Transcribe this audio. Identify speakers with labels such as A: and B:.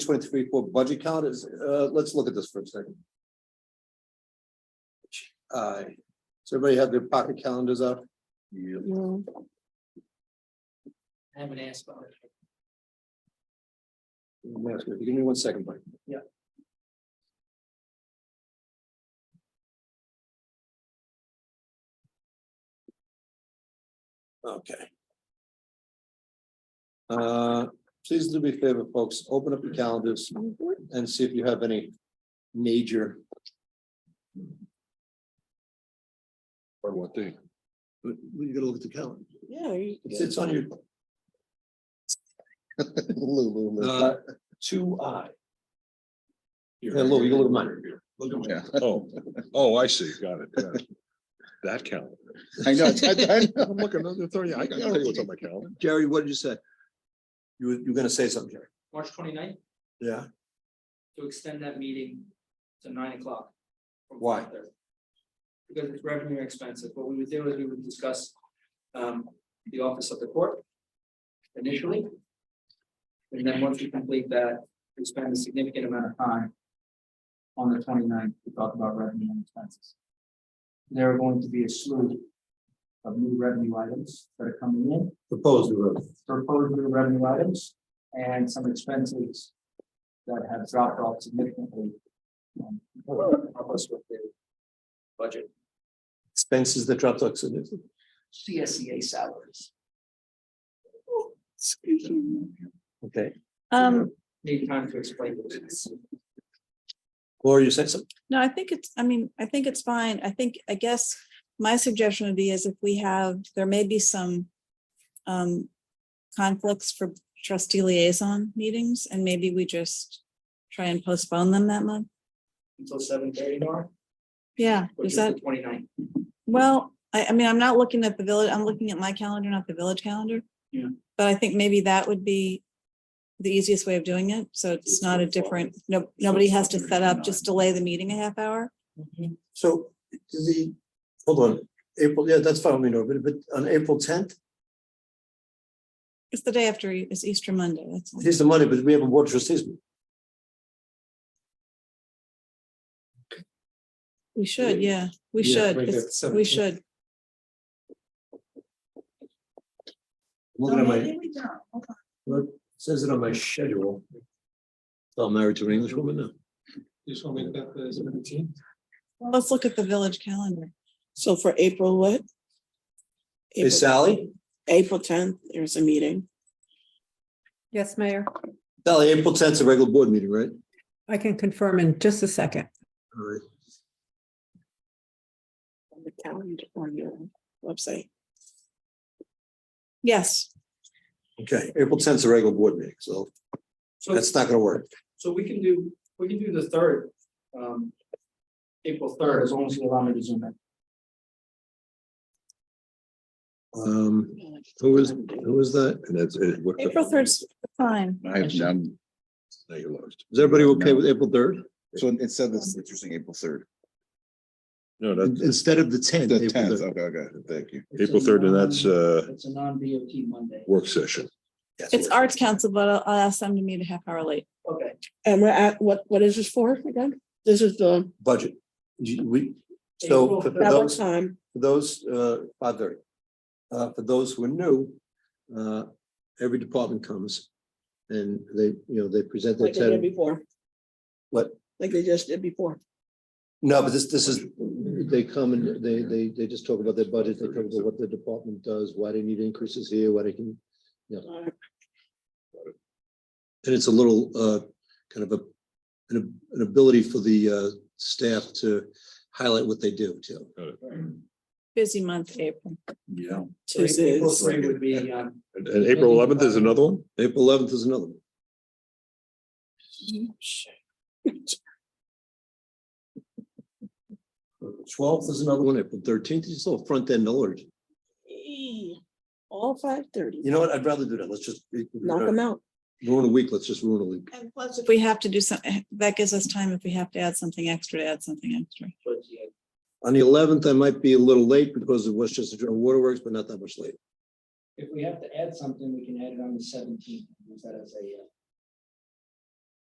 A: twenty-three for budget count is, uh, let's look at this for a second. Uh, so everybody have their pocket calendars up?
B: No,
C: I haven't asked about it.
A: Give me one second, Mike.
C: Yeah.
A: Okay. Uh, please do me a favor, folks, open up your calendars and see if you have any major
D: Or what thing?
A: But we gotta look at the calendar.
B: yeah, you-
A: It's, it's on your. Uh, Two I. Yeah, Lou, you can look at mine.
D: Yeah, oh, oh, I see, got it, got it. That calendar.
E: I know, it's- I- I-
D: I'm looking, I'm telling you, Oh, I gotta tell you what's on my calendar.
A: Jerry, what did you say? You, were- you were gonna say something, Jerry?
C: March 29th
A: Yeah.
C: to extend that meeting to nine o'clock. from
A: Why?
C: 5:30. Because it's revenue and expenses. What we would do is we would discuss um the office of the court initially. And then once we complete that, we spend a significant amount of time on the 29th to talk about revenue and expenses. There are going to be a slew of new revenue items that are coming in.
A: Proposed, we were.
C: proposed new revenue items and some expenses that have dropped off significantly. um, Help us with the budget.
A: expenses that dropped off significantly.
C: CSEA E salaries.
A: Okay.
B: um,
C: Need time to explain this.
A: Laura, you said something?
B: no, I think it's, I mean, I think it's fine. I think, I guess my suggestion would be is if we have, there may be some um, conflicts for trustee liaison meetings and maybe we just try and postpone them that month.
C: Until seven thirty tomorrow,
B: Yeah,
C: which
B: is
C: is the
B: that,
C: 29th.
B: well, I, I mean, I'm not looking at the village, I'm looking at my calendar, not the village calendar.
C: Yeah.
B: But I think maybe that would be the easiest way of doing it. So it's not a different, no, nobody has to set up, just delay the meeting a half hour.
A: So the, hold on, April, yeah, that's fine, we know, but, but on April tenth,
B: It's the day after, E- it's Easter Monday, that's all.
A: here's the money, but we have a water trustees. meeting.
B: We should, yeah, we
A: Yeah,
B: should,
A: right there,
B: it's- we
A: 17th.
B: should.
A: I'm Looking at my. Look, it says it on my schedule. So I'm married to an English woman now.
F: Just want to make that the seventeenth.
B: Let's look at the village calendar.
G: So for April, what?
A: Is
G: April-
A: Sally,
G: April tenth, there's a meeting.
H: Yes, Mayor,
A: Sally, April tenth is a regular board meeting, right?
H: I can confirm in just a second.
A: All right.
G: On the calendar on your website.
B: Yes,
A: Okay, April tenth is a regular board meeting, so
C: So,
A: that's not gonna work.
C: so we can do, we can do the third, um, April third, as long as you allow me to zoom in.
A: Um, who is, who is that?
D: And that's it. what the-
B: April third's fine.
E: I have none.
D: Now you're lost.
A: Is everybody okay with April third?
E: So instead of this, you're saying April third,
D: No, that's
A: Instead of the tenth.
E: the tenth, okay, okay, thank you.
C: It's a
D: April third, and
C: non-
D: that's a
C: It's a non-DOT Monday.
D: work session.
B: It's Arts Council, but I'll- I'll ask them to meet a half hour late.
C: Okay,
G: And we're at, what, what is this for again? This is the,
A: Budget. You- We, so
C: April
A: for for
C: third.
G: at what
A: those,
G: time?
A: for those, uh, five thirty. Uh, for those who are new, uh, every department comes and they, you know, they present their
G: Like they did
A: ten.
G: before.
A: What?
G: Like they just did before.
A: No, but this, this is, they come and they, they, they just talk about their budget, they talk about what the department does, why they need increases here, why they can.
G: Uh,
A: And it's a little, uh, kind of a, an, an ability for the, uh, staff to highlight what they do too.
B: Busy month, April.
E: Yeah.
C: so April
G: Tuesdays.
C: three would be, um,
D: And and April eleventh is another one?
A: April eleventh is another one. Twelfth is another one, April thirteenth, is still front end alert.
G: Eee, All five thirty,
A: You know what, I'd rather do that, let's just.
G: knock them out.
A: Ruin a week, let's just ruin a week.
G: And plus,
B: If we have to do something, that gives us time if we have to add something extra, to add something extra.
C: towards the end.
A: On the eleventh, I might be a little late because it was just a waterworks, but not that much late.
C: If we have to add something, we can add it on the seventeenth, use that as a, uh,